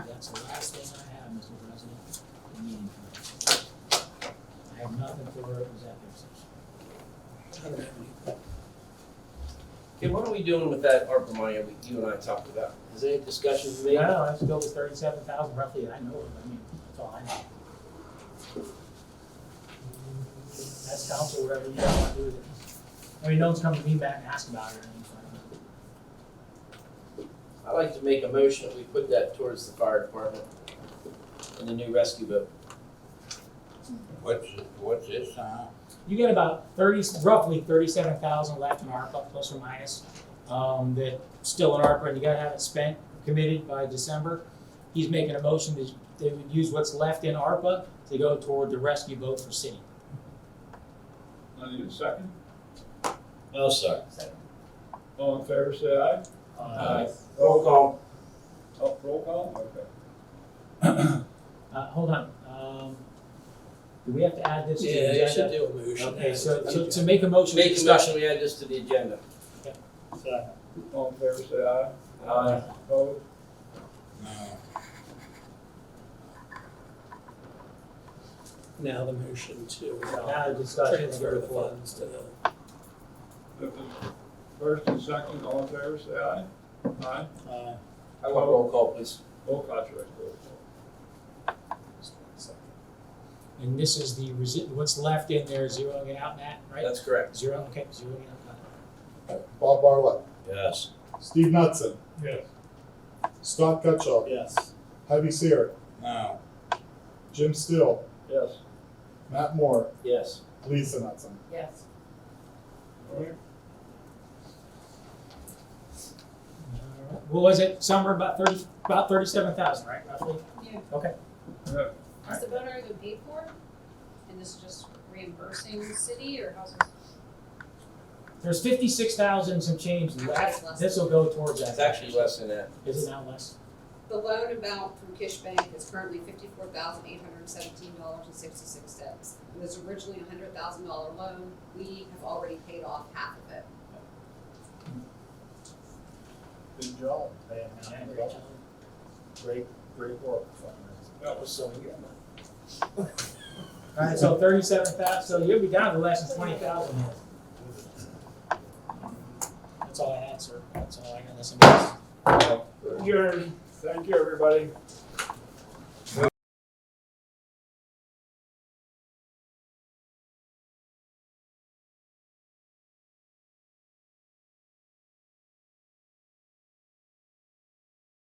That's the last thing I have, Mr. President, the meeting minutes. I have nothing for her, it was at their session. Ken, what are we doing with that ARPA money that we- you and I talked about? Is there any discussion to No, make? no, that's still was thirty-seven thousand roughly, I know it, I mean, that's all I know. That's council, whatever you guys want to do with it. I mean, no one's come to me back and asked about it or anything, so. I'd like to make a motion that we put that towards the fire department in the new rescue boat. What's, what's this, huh? Uh, You get about thirty, roughly thirty-seven thousand left in ARPA, plus or minus, um, that still in ARPA, and you gotta have it spent, committed by December. He's making a motion that they would use what's left in ARPA to go toward the rescue boat for city. I need a second. No, sir. All in favor, say aye. Aye. Roll call. Oh, roll call, okay. Uh, hold on, um, do we have to add this to the Yeah, you should agenda? do a motion. Okay, so, so to make a motion, Make a discussion. motion, we add this to the agenda. All in favor, say aye. Aye. Opposed? No. Now the motion to uh, Now, discussion, transfer the funds to the. If it's First and second, all in favor, say aye. Aye. I want roll call, please. Roll call, should I say roll call? and this is the resi- what's left in there, zeroing it out, Matt, right? That's correct. Zero, uh, okay, zeroing it out. Bob Barlett. Yes. Steve Knutson. Yes. Scott Gutschall. Yes. Heidi Seer. No. Jim Still. Yes. Matt Moore. Yes. Lisa Knutson. Yes. All right. Alright, What was it, somewhere about thirty, about thirty-seven thousand, right, roughly? Yeah. Okay. Yeah. Is the boat already been paid for? And this is just reimbursing the city or how's this? There's fifty-six thousand and some change left, Less. this will go towards that. It's actually less than that. Is it now less? The loan amount from Kish Bank is currently fifty-four thousand eight hundred seventeen dollars and sixty-six cents. It was originally a hundred thousand dollar loan. We have already paid off half of it. Good job. Great, great work. That was so good. Alright, so thirty-seven thousand, so you'll be down to less than twenty thousand here. That's all I had, sir, that's all I got, unless somebody else. You're, thank you, everybody.